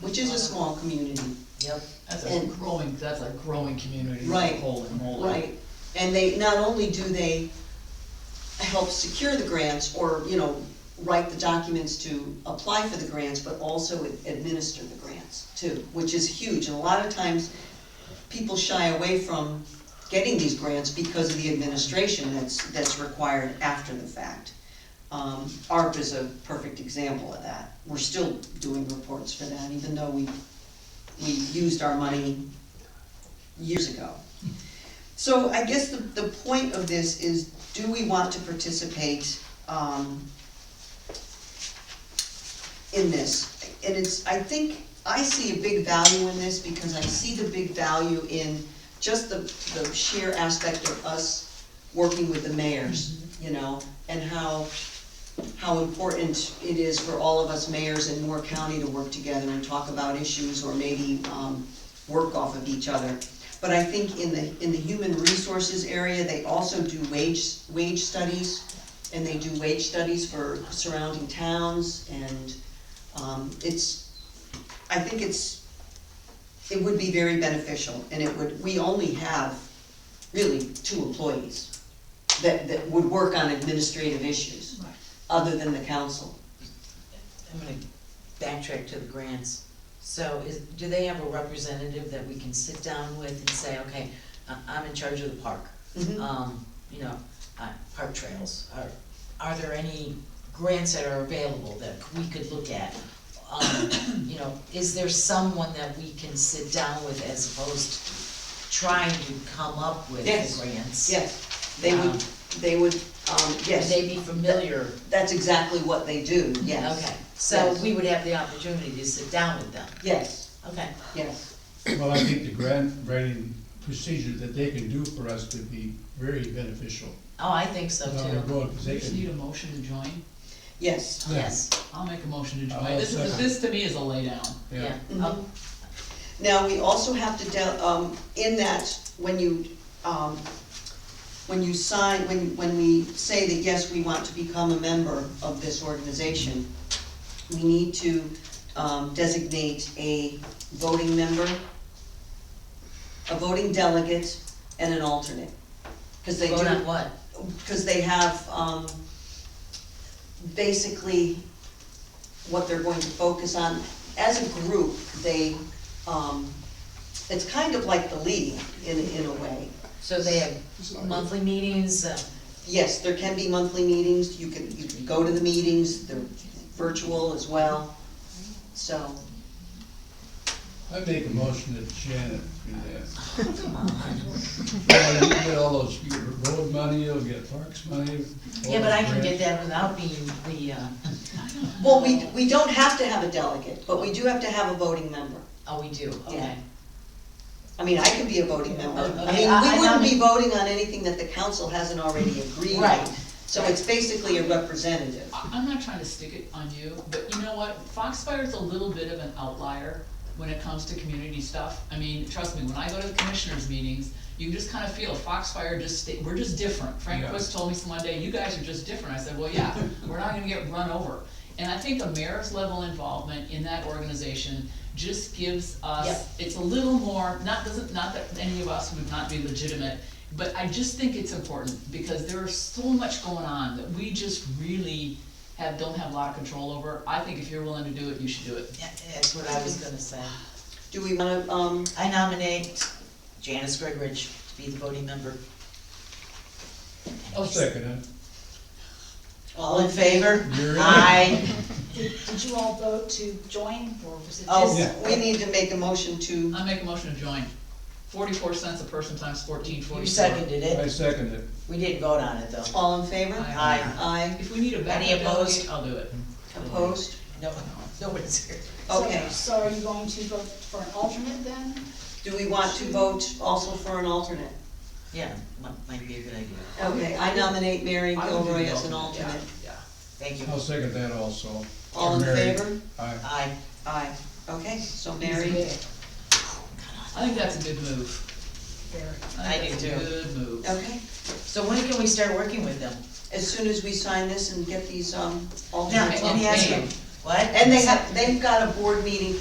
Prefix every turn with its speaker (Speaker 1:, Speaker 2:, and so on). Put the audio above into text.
Speaker 1: which is a small community,
Speaker 2: Yep,
Speaker 3: That's a
Speaker 1: And-
Speaker 3: growing, that's a growing community,
Speaker 1: Right,
Speaker 3: holy moly.
Speaker 1: right? And they, not only do they help secure the grants or, you know, write the documents to apply for the grants, but also administer the grants too, which is huge. And a lot of times, people shy away from getting these grants because of the administration that's, that's required after the fact. Um, ARP is a perfect example of that. We're still doing reports for that, even though we, we used our money years ago. So I guess the, the point of this is, do we want to participate, um, in this? And it's, I think, I see a big value in this because I see the big value in just the, the sheer aspect of us working with the mayors, you know, and how, how important it is for all of us mayors in Moore County to work together and talk about issues or maybe, um, work off of each other. But I think in the, in the human resources area, they also do wage, wage studies, and they do wage studies for surrounding towns, and, um, it's, I think it's, it would be very beneficial, and it would, we only have really two employees that, that would work on administrative issues,
Speaker 3: Right.
Speaker 1: other than the council.
Speaker 2: I'm gonna backtrack to the grants. So is, do they have a representative that we can sit down with and say, okay, I- I'm in charge of the park?
Speaker 1: Mhm.
Speaker 2: Um, you know, uh, park trails, are, are there any grants that are available that we could look at? Um, you know, is there someone that we can sit down with as opposed to trying to come up with the
Speaker 1: Yes.
Speaker 2: grants?
Speaker 1: Yes, they would, they would, um,
Speaker 2: Would
Speaker 1: yes,
Speaker 2: they be familiar?
Speaker 1: that's exactly what they do, yes.
Speaker 2: Okay, so
Speaker 1: Yes.
Speaker 2: we would have the opportunity to sit down with them,
Speaker 1: Yes,
Speaker 2: okay.
Speaker 1: yes,
Speaker 4: Well, I think the grant writing procedure that they can do for us could be very beneficial
Speaker 2: Oh, I think so
Speaker 4: down the
Speaker 2: too,
Speaker 4: road, because
Speaker 3: Do
Speaker 4: they
Speaker 3: you
Speaker 4: can,
Speaker 3: need a motion to join?
Speaker 1: yes.
Speaker 2: yes,
Speaker 3: I'll make a motion to join.
Speaker 4: I'll
Speaker 3: This is,
Speaker 4: second.
Speaker 3: this to me is a laydown.
Speaker 2: yeah.
Speaker 4: yeah.
Speaker 1: Mm-hmm.
Speaker 2: Oh,
Speaker 1: Um, Now, we also have to, del- um, in that, when you, um, when you sign, when, when we say that, yes, we want to become a member of this organization, we need to, um, designate a voting member, a voting delegate, and an alternate. Cause they do.
Speaker 2: Vote on what?
Speaker 1: because they have, um, basically what they're going to focus on. As a group, they, um, it's kind of like the league in, in a way.
Speaker 2: So they have monthly meetings, uh,
Speaker 1: Yes, there can be monthly meetings, you can, you can go to the meetings, they're virtual as well, so.
Speaker 4: I make a motion that Janet do that.
Speaker 2: come on.
Speaker 4: Well, You get all those, you get road money, you'll get parks money. all
Speaker 2: Yeah, but I can
Speaker 4: those
Speaker 2: get
Speaker 4: grants.
Speaker 2: that without being the, uh,
Speaker 1: Well, we, we don't have to have a delegate, but we do have to have a voting member.
Speaker 2: oh, we do, okay.
Speaker 1: Yeah. I mean, I can be a voting member. I
Speaker 2: Okay, I-
Speaker 1: mean,
Speaker 2: I
Speaker 1: we wouldn't be
Speaker 2: nominate-
Speaker 1: voting on anything that the council hasn't already agreed on.
Speaker 2: Right.
Speaker 1: So it's basically a representative.
Speaker 3: I, I'm not trying to stick it on you, but you know what, Foxfire's a little bit of an outlier when it comes to community stuff. I mean, trust me, when I go to the commissioners' meetings, you can just kind of feel Foxfire just, sta- we're just different. Frank
Speaker 4: Yeah.
Speaker 3: Quist told me some one day, you guys are just different. I said, well, yeah, we're not gonna get run over. And I think the mayor's level involvement in that organization just gives us, it's a little more, not, doesn't, not that any of us would not be legitimate, but I just think it's important, because there is so much going on that we just really have, don't have a lot of control over. I think if you're willing to do it, you should do it.
Speaker 2: Yeah, That's what I was gonna say.
Speaker 1: Do we wanna, um,
Speaker 2: I nominate Janice Gregridge to be the voting member.
Speaker 4: I'll second
Speaker 2: All in favor?
Speaker 4: it. You're in.
Speaker 2: Aye.
Speaker 5: Did did you all vote to join, or was it just?
Speaker 1: oh,
Speaker 4: Yeah.
Speaker 1: we need to make a motion to,
Speaker 3: I make a motion to join. Forty-four cents a person times fourteen forty-four.
Speaker 2: You seconded
Speaker 4: I
Speaker 2: it,
Speaker 4: second it.
Speaker 2: we didn't vote on it though.
Speaker 1: all in favor?
Speaker 3: Aye.
Speaker 1: Aye,
Speaker 3: If we need a
Speaker 2: Any
Speaker 3: backup
Speaker 2: opposed?
Speaker 3: delegate, I'll do it.
Speaker 1: opposed?
Speaker 2: No, no one's here.
Speaker 5: So-
Speaker 1: Okay,
Speaker 5: So are you going to vote for an alternate then?
Speaker 1: do we want to vote also for an alternate?
Speaker 2: Yeah, might, might be a good idea.
Speaker 1: Okay, I nominate Mary
Speaker 3: I would do
Speaker 1: Gilroy
Speaker 3: the
Speaker 1: as an
Speaker 3: alternate,
Speaker 1: alternate.
Speaker 3: Yeah,
Speaker 2: Thank you.
Speaker 4: I'll second that also.
Speaker 1: All in
Speaker 4: Mary.
Speaker 1: favor?
Speaker 4: Aye.
Speaker 2: Aye.
Speaker 1: Aye, okay, so
Speaker 3: yeah.
Speaker 1: Mary,
Speaker 3: I think that's a good move.
Speaker 5: Very.
Speaker 2: I
Speaker 3: think
Speaker 2: do
Speaker 3: that's a
Speaker 2: too.
Speaker 3: Good move.
Speaker 1: okay,
Speaker 2: So when can we start working with them?
Speaker 1: as soon as we sign this and get these, um,
Speaker 2: Now,
Speaker 1: alternates.
Speaker 2: let me
Speaker 1: on
Speaker 2: ask
Speaker 1: paper.
Speaker 2: you, what?
Speaker 1: And they have, they've got a board meeting